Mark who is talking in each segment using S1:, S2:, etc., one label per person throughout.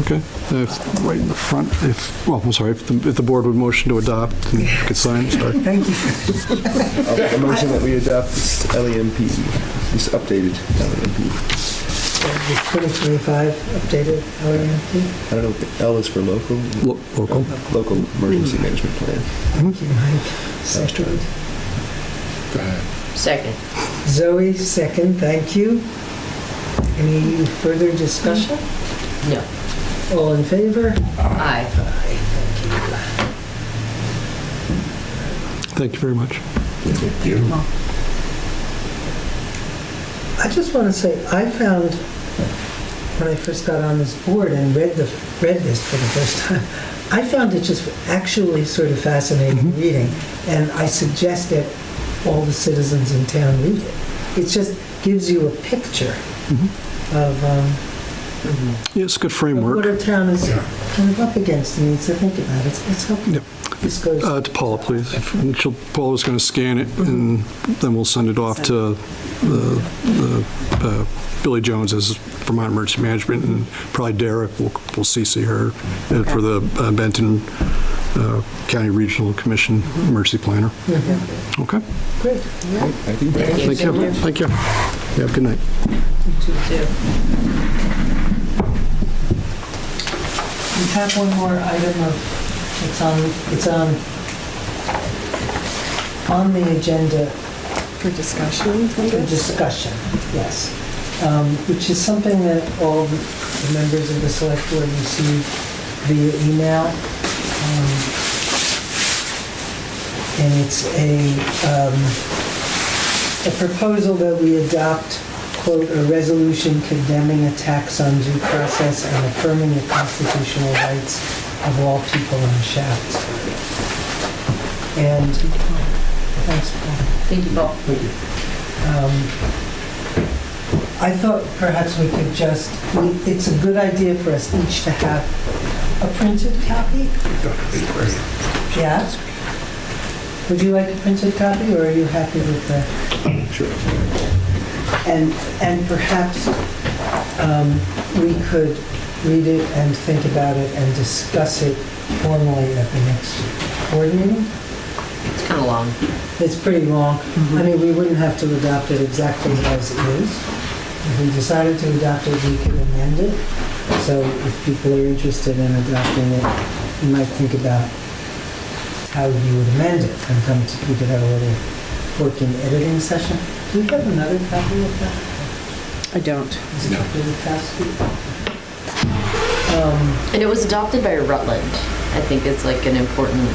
S1: Okay, Uh, if- right in the front, if, well, I'm sorry, if the if the board would motion to adopt, and you could sign, sorry.
S2: Thank you.
S3: I'll make a motion that we adopt E this LEMP, this updated E LEMP.
S2: Twenty-twenty-five updated LRMP.
S3: I don't know, what L is for local,
S1: Lo- Local.
S3: local emergency management plan.
S2: Thank you, Mike. Second.
S4: Second.
S2: Zoe, second, thank you. Any further discussion?
S4: No.
S2: All in favor?
S4: Aye.
S1: Thank you very much.
S2: I just want to say, I found, when I first got on this board and read the, read this for the first time, I found it just actually sort of fascinating reading, and I suggest that all the citizens in town read it. It just gives you a picture of um,
S1: Yeah, it's a good
S2: of what
S1: framework.
S2: our town is kind of up against and needs to think about. It's it's helpful.
S1: Yep.
S2: This goes,
S1: Uh, To Paula, please. And she'll- Paula's going to scan it, and then we'll Mm-hmm. send it off to the- the, uh, Billy Jones as Vermont Emergency Management, and probably Derek, will will CC her uh, for the uh, Benton uh, County Regional Commission Emergency Planner. Okay?
S2: great.
S1: oh.
S3: Thank you.
S1: Mm-hmm. Thank you. Thank you. Yeah, good night.
S4: Two, two.
S2: We have one more item of, it's on, it's on, on the agenda
S5: For discussion,
S2: for discussion, yes. Um, Which is something that all the members of the select board receive via email. Um, And it's a, um, a proposal that we adopt, quote, "A resolution condemning attacks on due process and affirming the constitutional rights of all people in Shaftesbury." And, thanks, Paul.
S4: Thank you, Paul.
S2: Um, I thought perhaps we could just, we- it's a good idea for us each to have a printed copy. Yeah? Would you like a printed copy, or are you happy with the? Sure. And, and perhaps um, we could read it and think about it and discuss it formally at the next board meeting?
S4: It's kind of long.
S2: It's pretty long. I mean, we wouldn't have to adopt it exactly as it is. If we decided to adopt it, we could amend it. So if people are interested in adopting it, you might think about how you would amend it and come to, we could have a little working editing session. Do we have another copy of that?
S5: I don't.
S2: Is it really fast? Um,
S4: And it was adopted by Rutland. I think it's like an important,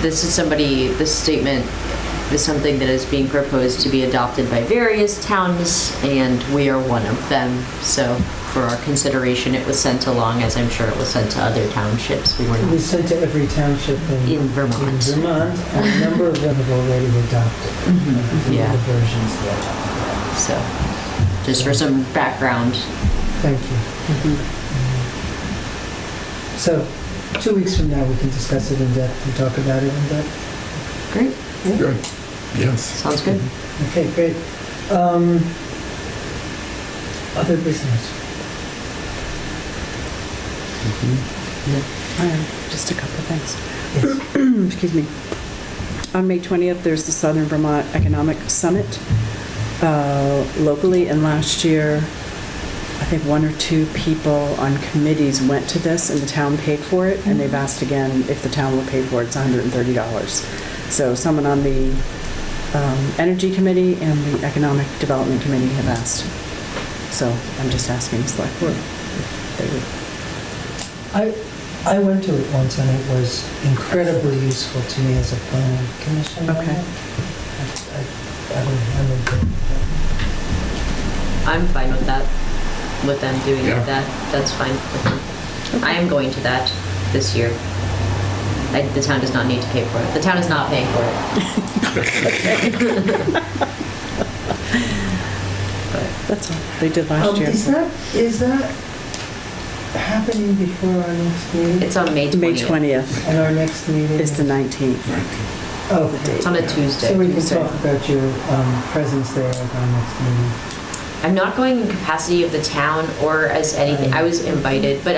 S4: this is somebody, this statement is something that is being proposed to be adopted by various towns, and we are one of them. So for our consideration, it was sent along, as I'm sure it was sent to other townships. We were
S2: It was
S4: not
S2: sent to every township in
S4: in
S2: in
S4: Vermont.
S2: Vermont, and a number of them have already adopted
S4: Yeah.
S2: the versions there.
S4: So just for some background,
S2: Thank you. So, two weeks from now, we can discuss it in depth and talk about it in depth.
S4: great,
S2: Yeah.
S6: Yes.
S4: sounds good.
S2: Okay, great. Um, Other business?
S5: Um, Just a couple of things.
S2: Yes.
S5: Excuse me. On May 20th, there's the Southern Vermont Economic Summit uh, locally, and last year, I think one or two people on committees went to this, and the town paid for it, and they've asked again if the town will pay for it, it's $130. So someone on the um, Energy Committee and the Economic Development Committee have asked. So I'm just asking the select board if they would
S2: I, I went to it once, and it was incredibly useful to me as a planning commissioner.
S5: Okay.
S2: I- I- I would- I would go.
S4: I'm fine with that, with them doing
S6: Yeah.
S4: that. That's fine. with me. I am going to that this year. I, the town does not need to pay for it. The town is not paying for it.
S5: That's all. They did last
S2: Um,
S5: year.
S2: Is that, is that happening before our next meeting?
S4: It's on May 20th.
S5: May 20th
S2: And our next meeting?
S5: is the 19th.
S2: Oh,
S4: It's on a Tuesday.
S2: So we can
S4: so-
S2: talk about your um, presence there at our next meeting.
S4: I'm not going in capacity of the town or as anything. I was invited, but